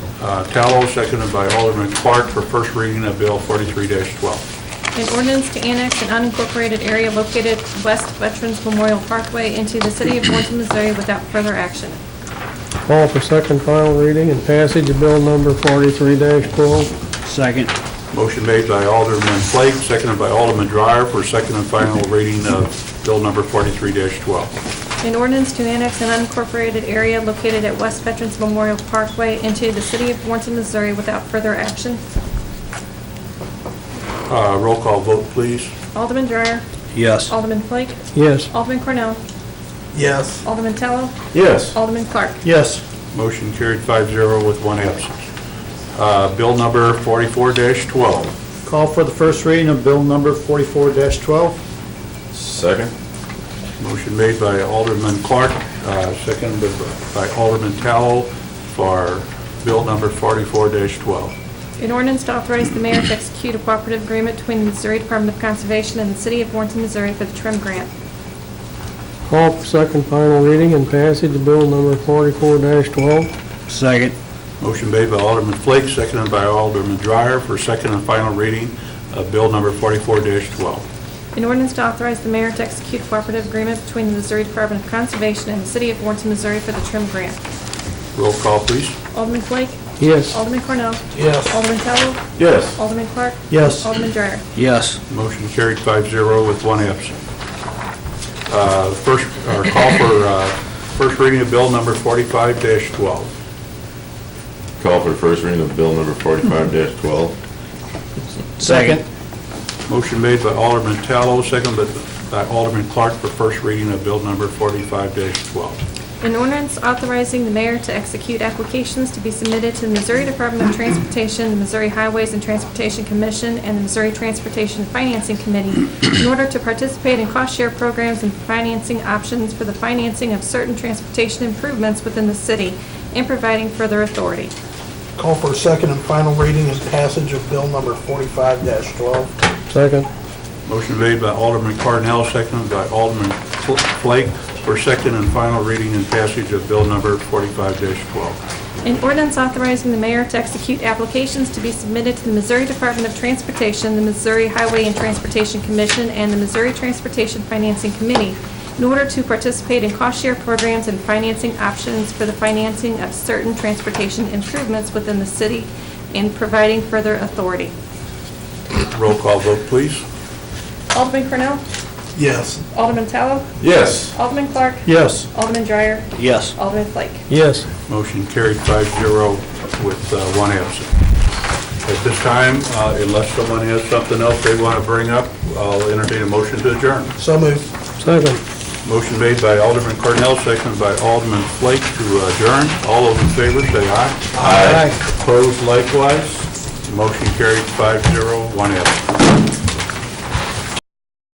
uh, Tallow, seconded by Alderman Clark for first reading of Bill 43-12. An ordinance to annex an unincorporated area located west of Veterans Memorial Parkway into the city of Warrenton, Missouri without further action. Call for second final reading and passage of bill number forty-three twelve. Second. Motion made by Alderman Flake, seconded by Alderman Dreyer for second and final reading of Bill number 43-12. An ordinance to annex an unincorporated area located at west Veterans Memorial Parkway into the city of Warrenton, Missouri without further action. Uh, Roll call vote, please. Alderman Dreyer. Yes. Alderman Flake. Yes. Alderman Cornell. Yes. Alderman Tello. Yes. Alderman Clark. Yes. Motion carried 5-0 with one absence. Uh, Bill number 44-12. Call for the first reading of bill number forty-four twelve. Second? Motion made by Alderman Clark, uh, seconded by Alderman Tallow for bill number 44-12. An ordinance to authorize the mayor to execute a cooperative agreement between the Missouri Department of Conservation and the city of Warrenton, Missouri for the trim grant. Call for second final reading and passage of bill number forty-four twelve. Second. Motion made by Alderman Flake, seconded by Alderman Dreyer for second and final reading of bill number 44-12. An ordinance to authorize the mayor to execute a cooperative agreement between the Missouri Department of Conservation and the city of Warrenton, Missouri for the trim grant. Roll call, please. Alderman Flake. Yes. Alderman Cornell. Yes. Alderman Tello. Yes. Alderman Clark. Yes. Alderman Dreyer. Yes. Motion carried 5-0 with one absent. Uh, First, or call for uh, first reading of bill number 45-12. Call for first reading of bill number forty-five twelve. Second. Motion made by Alderman Tallow, seconded by Alderman Clark for first reading of bill number 45-12. An ordinance authorizing the mayor to execute applications to be submitted to the Missouri Department of Transportation, the Missouri Highways and Transportation Commission, and the Missouri Transportation Financing Committee in order to participate in cost-share programs and financing options for the financing of certain transportation improvements within the city, and providing further authority. Call for a second and final reading and passage of bill number forty-five twelve. Second. Motion made by Alderman Cornell, seconded by Alderman Fl- Flake for second and final reading and passage of bill number 45-12. An ordinance authorizing the mayor to execute applications to be submitted to the Missouri Department of Transportation, the Missouri Highway and Transportation Commission, and the Missouri Transportation Financing Committee in order to participate in cost-share programs and financing options for the financing of certain transportation improvements within the city and providing further authority. Roll call vote, please. Alderman Cornell? Yes. Alderman Tallow? Yes. Alderman Clark? Yes. Alderman Dreyer? Yes. Alderman Flake? Yes. Motion carried 5-0 with uh, one absent. At this time, uh, unless someone has something else they want to bring up, I'll entertain a motion to adjourn. So moved. Second. Motion made by Alderman Cornell, seconded by Alderman Flake to adjourn. All those in favor, say aye. Aye. Opposed likewise. Motion carried 5-0, one absent.